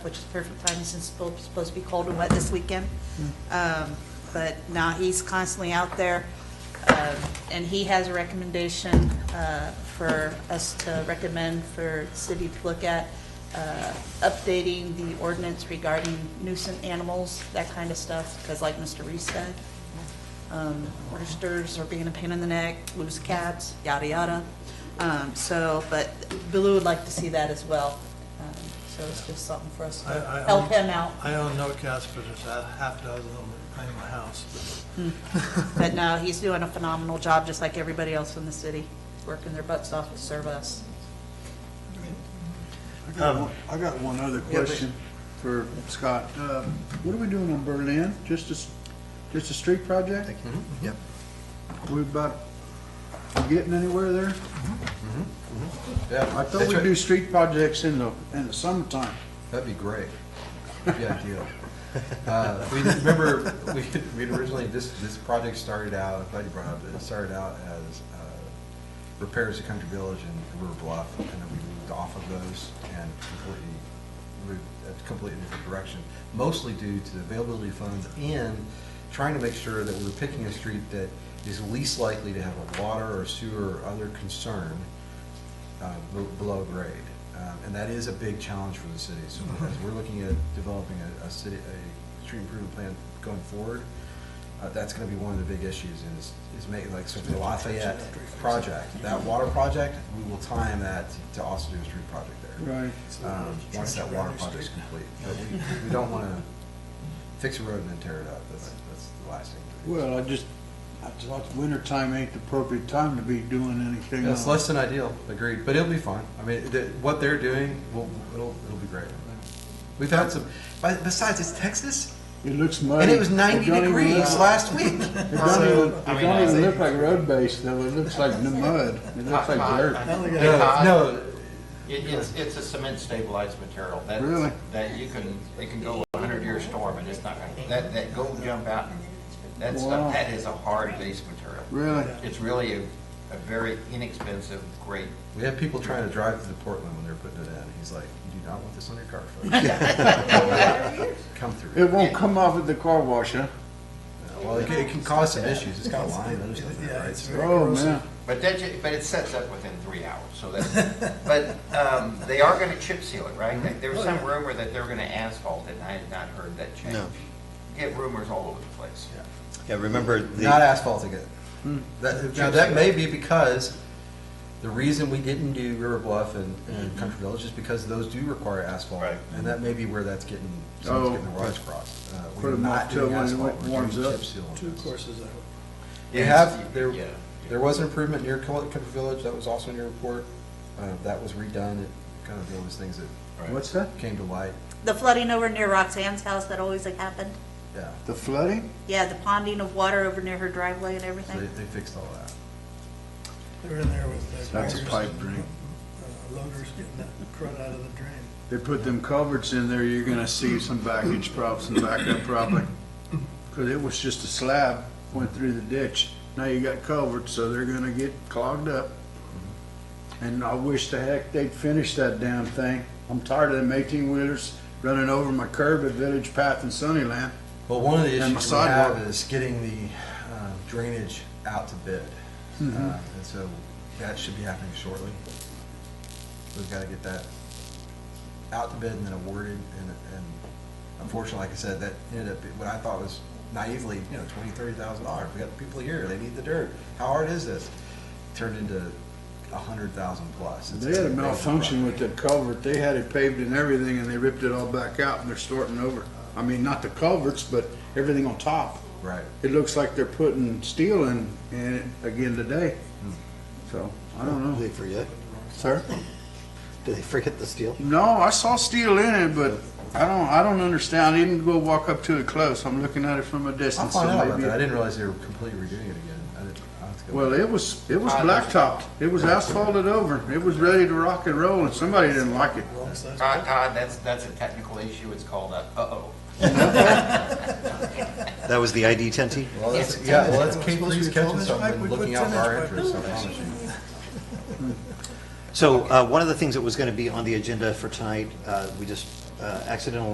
which is perfect timing since it's supposed- supposed to be cold and wet this weekend. Um, But now he's constantly out there, um, and he has a recommendation uh, for us to recommend for city to look at, uh, updating the ordinance regarding nuisance animals, that kind of stuff, because like Mr. Reese said, um, roosters are being a pain in the neck, loose cats, yada, yada. Um, So, but Blue would like to see that as well. Um, So it's just something for us I- I to help own- him out. I own no cats, but there's a half dozen of them in my house. But no, he's doing a phenomenal job, just like everybody else in the city, working their butts off to serve us. I got Um, one- I got one other but- question for Scott. um, Uh, What are we doing on Berlin? Just a, s- just a street project? Mm-hmm. Yep. We about getting anywhere there? Yeah, I thought we'd do street projects in the, in the summertime. That'd be great. Yeah, deal. Uh, We remember, we we'd originally, this, this project started out, I'm glad you brought it up, it started out as uh, repairs to Country Village and River Bluff, and then we moved off of those and completely, moved a completely different direction, mostly due to the availability of funds and trying to make sure that we're picking a street that is least likely to have a water or sewer or other concern uh, b- below grade. Um, And that is a big challenge for the city. So as we're looking at developing a, a city, a street improvement plan going forward, uh, that's gonna be one of the big issues is, is making, like, so for the Lafayette project, that water project, we will time that to also do a street project there. Right. Um, Once that water project's complete. But we, we don't wanna fix a road and then tear it up. That's, that's the last thing. to do. Well, I just, I thought wintertime ain't the appropriate time to be doing anything. It's on it. less than ideal, agreed, but it'll be fine. I mean, the, what they're doing, will it'll, it'll be great. We've had some, but besides, it's Texas, It looks muddy. and it was ninety don't even degrees look- last week. It don't even, So- it don't even look like road base though. It looks like n- mud. It looks like dirt. No, no, It, it's, it's a cement stabilized material. that- Really? That you can, it can go a hundred year storm and it's not gonna, that, that gold jump out, and that Wow. stuff, that is a hard base material. Really? It's really a, a very inexpensive, great, we had people trying to drive to Portland when they were putting it in. He's like, you do not want this on your car, folks. Come through. It won't come off at the car wash, huh? Well, it can, it can cause some issues. It's got lime and other stuff in it, right? So- Oh, man. but that, ju- but it sets up within three hours, so that's, but, um, they are gonna chip seal it, right? Like, There was some rumor that they were gonna asphalt it, and I had not heard that change. No. Get rumors all over the place. Yeah, remember the. Not asphalting it. Hmm. That, now, that may be because the reason we didn't do River Bluff and, Mm-hmm. and Country Village is because those do require asphalt. Right. And that may be where that's getting, someone's getting the wires crossed. Uh, Oh, Put We're them not off till doing when it asphalt, we're warms doing up. chip seal. on Two those. courses out. We have, there, there was an improvement near Col- Country Village, that was also in your report. Uh, that was redone, it kind of one of those things that What's that? came to light, The flooding over near Roxanne's house that always like, happened, yeah. The flooding? yeah, the ponding of water over near her driveway and So they, everything. they fixed all that. They were in there with. That's a pipe dream. uh, Loaders getting that crud out of the drain. They put them culverts in there, you're gonna see some backage problems and backup probably. Cause it was just a slab, went through the ditch. Now you got culverts, so they're gonna get clogged up. And I wish the heck they'd finish that damn thing. I'm tired of them eighteen wheelers running over my curb at Village Path and Sunnyland. Well, one of the And issues we the sidewalk. have is getting the uh, drainage out to bid. Mm-hmm. Uh, And so that should be happening shortly. We've got to get that out to bid and then awarded. And and unfortunately, like I said, that ended up, being what I thought was naively, you know, twenty, thirty thousand dollars. We got people here, they need the dirt. How hard is this? Turned into a hundred thousand plus. It's They had a gonna be big malfunction with project. that culvert. They had it paved and everything and they ripped it all back out and they're starting over. I mean, not the culverts, but everything on top. Right. It looks like they're putting steel in, in it again today. So, I don't Did know. they forget? Sir? Did they forget the steel? No, I saw steel in it, but I don't, I don't understand. I didn't go walk up to it close. I'm looking at it from a I'll distance. find so out about maybe- that. I didn't realize they were completely redoing it again. I didn't, I'll have to go. Well, it was, it was blacktopped. It was asphalted over. It was ready to rock and roll and somebody didn't like it. Wrong size. Todd, Uh, Todd, that's, that's a technical issue, it's called a uh-oh. That was the ID 10 T? Well, that's, yeah, well, that's Kate Supposed to Lee's be a catching 12 -inch pipe, something, we put looking out for our 10 -inch interests, I promise you. So uh, one of the things that was going to be on the agenda for tonight, uh, we just uh, accidental